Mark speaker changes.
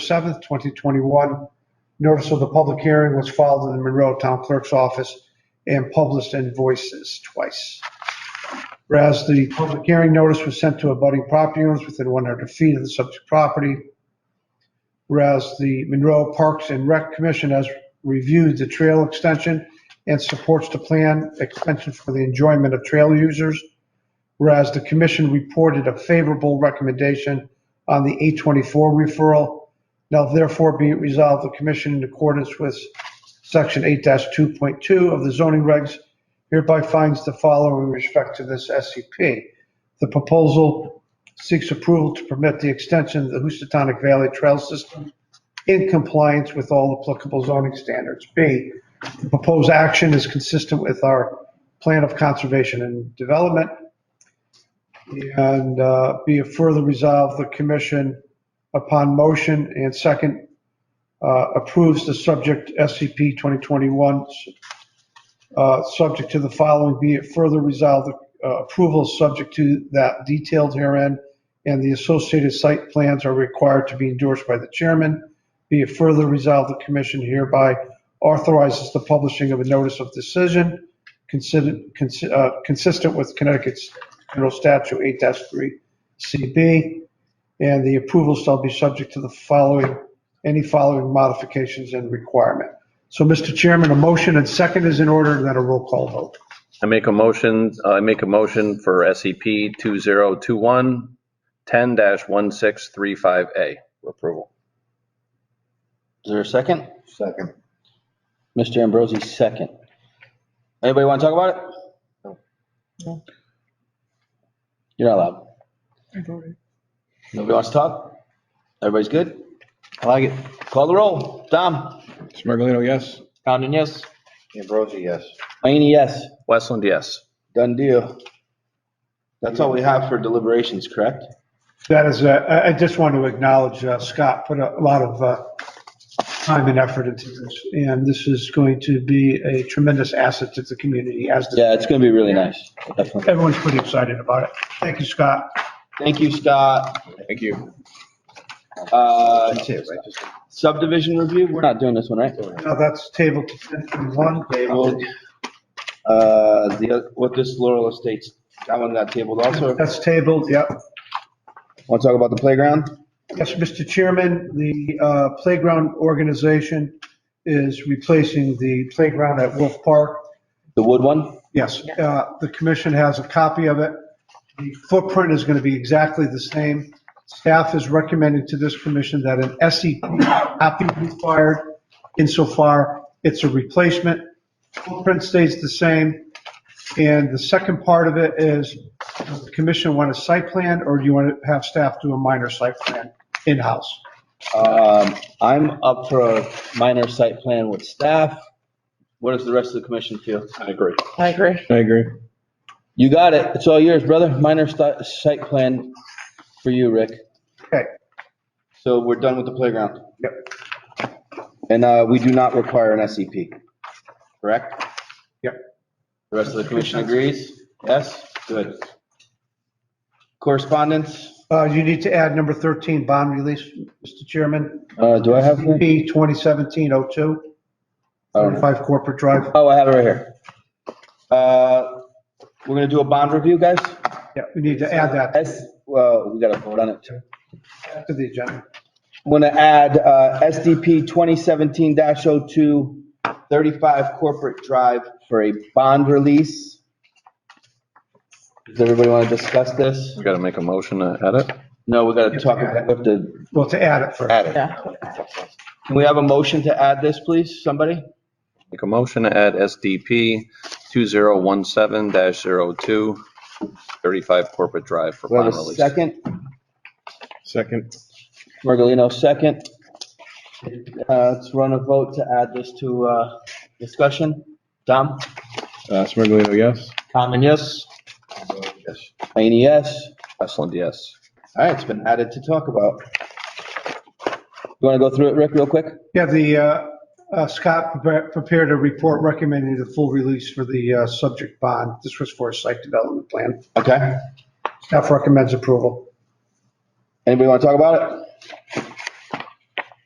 Speaker 1: 7th, 2021. Notice of the public hearing was filed in the Monroe Town Clerk's office and published in Voices twice. Whereas the public hearing notice was sent to abutting property owners within 100 feet of the subject property. Whereas the Monroe Parks and Rec Commission has reviewed the trail extension and supports the plan extension for the enjoyment of trail users. Whereas the commission reported a favorable recommendation on the 824 referral. Now therefore be it resolved, the commission in accordance with section 8-2.2 of the zoning regs hereby finds the following respect to this SCP. The proposal seeks approval to permit the extension of the Houstonic Valley Trail System in compliance with all applicable zoning standards. B, the proposed action is consistent with our plan of conservation and development. And uh, be it further resolved, the commission, upon motion and second, uh, approves the subject SCP 2021 uh, subject to the following, be it further resolved, uh, approval is subject to that detailed herein, and the associated site plans are required to be endorsed by the chairman. Be it further resolved, the commission hereby authorizes the publishing of a notice of decision considered, consi- uh, consistent with Connecticut's General Statute 8-3 CB, and the approval shall be subject to the following, any following modifications and requirement. So, Mr. Chairman, a motion and second is in order, and then a roll call vote.
Speaker 2: I make a motion, uh, I make a motion for E SCP 2021 10-1635A for approval.
Speaker 3: Is there a second?
Speaker 4: Second.
Speaker 3: Mr. Ambrosi, second. Anybody want to talk about it? You're not allowed. Nobody wants to talk? Everybody's good? I like it. Call the roll. Dom?
Speaker 5: Smirgalino, yes.
Speaker 3: Condon, yes.
Speaker 4: Ambrosi, yes.
Speaker 3: Mayne, yes.
Speaker 2: Westland, yes.
Speaker 3: Done deal. That's all we have for deliberations, correct?
Speaker 1: That is, uh, I I just want to acknowledge uh, Scott put a lot of uh, time and effort into this, and this is going to be a tremendous asset to the community as the-
Speaker 3: Yeah, it's going to be really nice. Definitely.
Speaker 1: everyone's pretty excited about it. Thank you, Scott.
Speaker 3: Thank you, Scott.
Speaker 5: Thank you.
Speaker 3: Uh,
Speaker 4: That's it, right? Just-
Speaker 3: Subdivision review, we're not doing this one, right?
Speaker 1: Now that's table to 1031.
Speaker 3: Tabled. Uh, the, oth- what this Laurel Estates, that one got tabled also.
Speaker 1: That's tabled, yep.
Speaker 3: Want to talk about the playground?
Speaker 1: Yes, Mr. Chairman, the uh, playground organization is replacing the playground at Wolf Park.
Speaker 3: The wood one?
Speaker 1: Yes, uh, the commission has a copy of it. The footprint is going to be exactly the same. Staff is recommending to this commission that an SEP not be required insofar it's a replacement. Footprint stays the same. And the second part of it is, does the commission want a site plan or do you want to have staff do a minor site plan in-house?
Speaker 3: Um, I'm up for a minor site plan with staff. What does the rest of the commission feel? I agree.
Speaker 6: I agree.
Speaker 5: I agree.
Speaker 3: You got it. It's all yours, brother. Minor sti- site plan for you, Rick.
Speaker 1: Okay,
Speaker 3: So we're done with the playground.
Speaker 1: Yep.
Speaker 3: And, uh, we do not require an SEP, correct?
Speaker 1: Yep.
Speaker 3: The rest of the commission agrees? Yes? Good. Correspondence?
Speaker 1: Uh, you need to add number 13, bond release, Mr. Chairman.
Speaker 3: Uh, do I have? that?
Speaker 1: P 2017-02.
Speaker 4: Oh.
Speaker 3: I don't know.
Speaker 1: 35 Corporate Drive.
Speaker 3: Oh, I have it right here. Uh, we're gonna do a bond review, guys?
Speaker 1: Yeah, we need to add that
Speaker 3: S, well, we gotta vote on it too.
Speaker 1: to the agenda.
Speaker 3: I'm gonna add, uh, SDP twenty seventeen 2 35 corporate drive for a bond release. Does everybody wanna discuss this?
Speaker 2: We got to make a motion to edit.
Speaker 3: No, we gotta talk about the,
Speaker 1: Well, to add it first.
Speaker 4: Add it.
Speaker 6: Yeah.
Speaker 3: can we have a motion to add this, please, somebody?
Speaker 2: Make a motion to add SDP 2017-02 35 Corporate Drive for
Speaker 3: We have
Speaker 2: bond
Speaker 3: a
Speaker 2: release.
Speaker 3: second,
Speaker 5: Second.
Speaker 3: Mergelino second. Uh, let's run a vote to add this to, uh, discussion. Dom?
Speaker 5: Uh, Smirgalino, yes.
Speaker 3: Common, yes.
Speaker 4: Yes.
Speaker 3: Mayne, yes.
Speaker 2: Westland, yes.
Speaker 3: All right, it's been added to talk about. You want to go through it, Rick, real quick?
Speaker 1: Yeah, the, uh, uh, Scott prepar- prepared a report recommending the full release for the uh, subject bond. This was for a site development plan.
Speaker 3: Okay.
Speaker 1: Staff recommends approval.
Speaker 3: Anybody want to talk about it?